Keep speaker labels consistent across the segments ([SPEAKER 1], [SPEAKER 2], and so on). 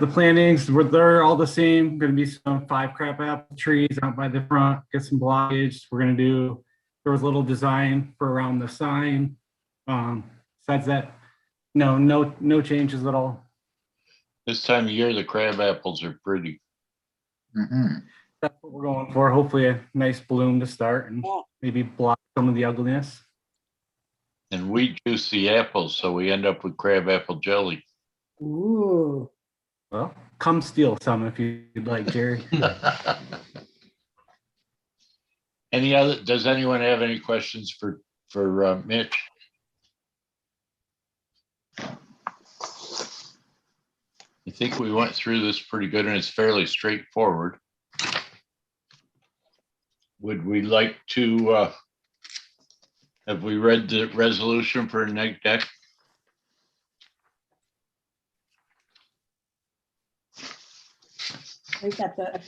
[SPEAKER 1] The plantings, were- they're all the same. Going to be some five crab apple trees out by the front, get some blockage. We're going to do, there was a little design for around the sign. Um, Besides that, no, no, no changes at all.
[SPEAKER 2] This time of year, the crab apples are pretty.
[SPEAKER 3] Mhm.
[SPEAKER 1] That's what we're going for. Hopefully a nice bloom to start and
[SPEAKER 4] Yeah.
[SPEAKER 1] maybe block some of the ugliness.
[SPEAKER 2] And we juice the apples, so we end up with crab apple jelly.
[SPEAKER 4] Ooh,
[SPEAKER 1] Well, come steal some if you'd like, Jerry.
[SPEAKER 2] Any other, does anyone have any questions for, for uh, Mitch? I think we went through this pretty good and it's fairly straightforward. Would we like to, uh, have we read the resolution for neg deck?
[SPEAKER 4] we got the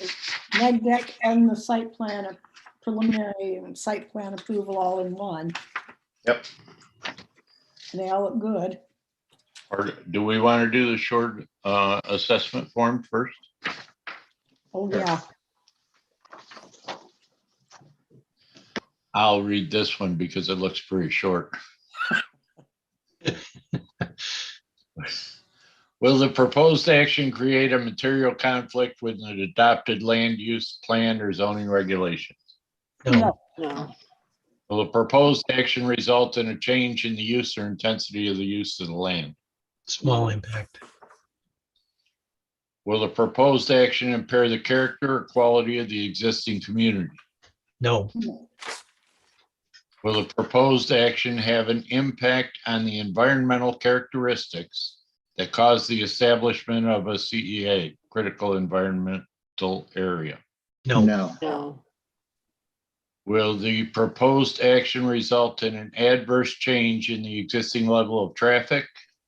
[SPEAKER 4] neg deck and the site plan, preliminary and site plan approval all in one.
[SPEAKER 2] Yep.
[SPEAKER 4] And they all look good.
[SPEAKER 2] Or do we want to do the short uh, assessment form first?
[SPEAKER 4] Oh, yeah.
[SPEAKER 2] I'll read this one because it looks pretty short. Will the proposed action create a material conflict with an adopted land use plan or zoning regulations?
[SPEAKER 4] No.
[SPEAKER 2] Will the proposed action result in a change in the use or intensity of the use of the land?
[SPEAKER 5] Small impact.
[SPEAKER 2] Will the proposed action impair the character or quality of the existing community?
[SPEAKER 5] No,
[SPEAKER 2] Will the proposed action have an impact on the environmental characteristics that cause the establishment of a CEA, critical environmental area?
[SPEAKER 5] no,
[SPEAKER 3] No,
[SPEAKER 4] No.
[SPEAKER 2] Will the proposed action result in an adverse change in the existing level of traffic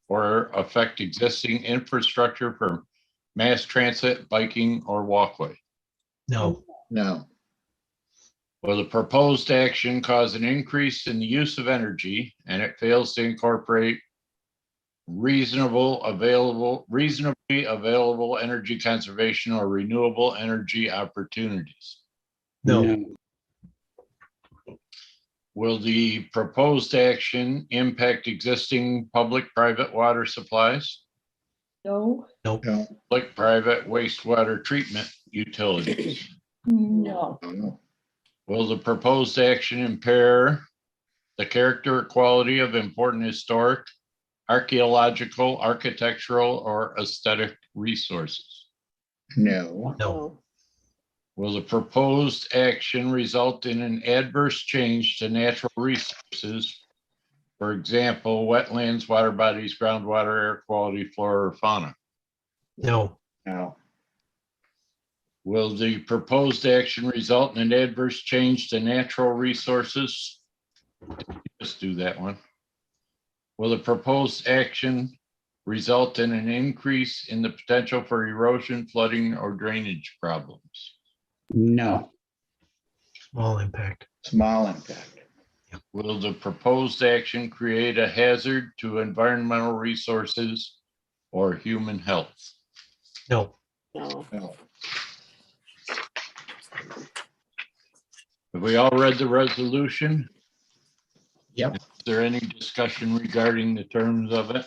[SPEAKER 2] or affect existing infrastructure for mass transit, biking, or walkway?
[SPEAKER 5] no,
[SPEAKER 3] no,
[SPEAKER 2] Will the proposed action cause an increase in the use of energy and it fails to incorporate reasonable available, reasonably available energy conservation or renewable energy opportunities?
[SPEAKER 5] no,
[SPEAKER 2] Will the proposed action impact existing public-private water supplies,
[SPEAKER 4] No,
[SPEAKER 3] no,
[SPEAKER 2] like private wastewater treatment utilities?
[SPEAKER 4] no,
[SPEAKER 3] Oh, no,
[SPEAKER 2] Will the proposed action impair the character or quality of important historic, archaeological, architectural, or aesthetic resources?
[SPEAKER 3] no,
[SPEAKER 5] no,
[SPEAKER 2] Will the proposed action result in an adverse change to natural resources? For example, wetlands, water bodies, groundwater, air quality, flora, or fauna?
[SPEAKER 5] no,
[SPEAKER 3] no,
[SPEAKER 2] Will the proposed action result in an adverse change to natural resources? Just do that one. Will the proposed action result in an increase in the potential for erosion, flooding, or drainage problems?
[SPEAKER 6] No,
[SPEAKER 5] small impact.
[SPEAKER 3] small impact,
[SPEAKER 2] Will the proposed action create a hazard to environmental resources or human health?
[SPEAKER 5] No,
[SPEAKER 3] no,
[SPEAKER 2] Have we all read the resolution?
[SPEAKER 3] Yep.
[SPEAKER 2] Is there any discussion regarding the terms of it?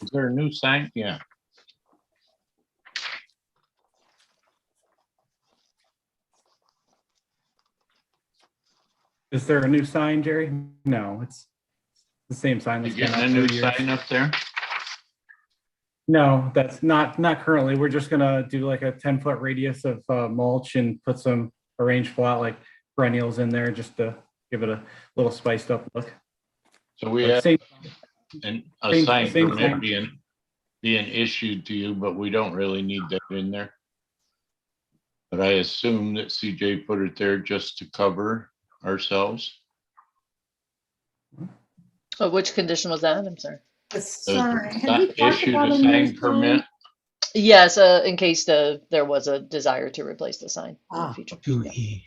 [SPEAKER 2] Is there a new sign? Yeah.
[SPEAKER 1] Is there a new sign, Jerry? No, it's the same sign.
[SPEAKER 2] You
[SPEAKER 1] that's been
[SPEAKER 2] getting a
[SPEAKER 1] up
[SPEAKER 2] new
[SPEAKER 1] for years.
[SPEAKER 2] sign up there?
[SPEAKER 1] No, that's not, not currently. We're just gonna do like a ten foot radius of uh, mulch and put some arranged flat like perennials in there just to give it a little spiced up look.
[SPEAKER 2] So we have
[SPEAKER 1] Same-
[SPEAKER 2] an, a
[SPEAKER 1] Same-
[SPEAKER 2] sign
[SPEAKER 1] same
[SPEAKER 2] permit
[SPEAKER 1] sign.
[SPEAKER 2] being, being issued to you, but we don't really need that in there. But I assume that CJ put it there just to cover ourselves.
[SPEAKER 7] Oh, which condition was that? I'm sorry.
[SPEAKER 4] The
[SPEAKER 2] So
[SPEAKER 4] sign. Have we
[SPEAKER 2] not
[SPEAKER 4] talked
[SPEAKER 2] Issued
[SPEAKER 4] about
[SPEAKER 2] a
[SPEAKER 4] a new
[SPEAKER 2] sign
[SPEAKER 4] sign?
[SPEAKER 2] permit,
[SPEAKER 7] Yes, uh, in case the, there was a desire to replace the sign in
[SPEAKER 4] Ah.
[SPEAKER 7] the future.
[SPEAKER 5] two
[SPEAKER 7] Yeah.
[SPEAKER 5] E,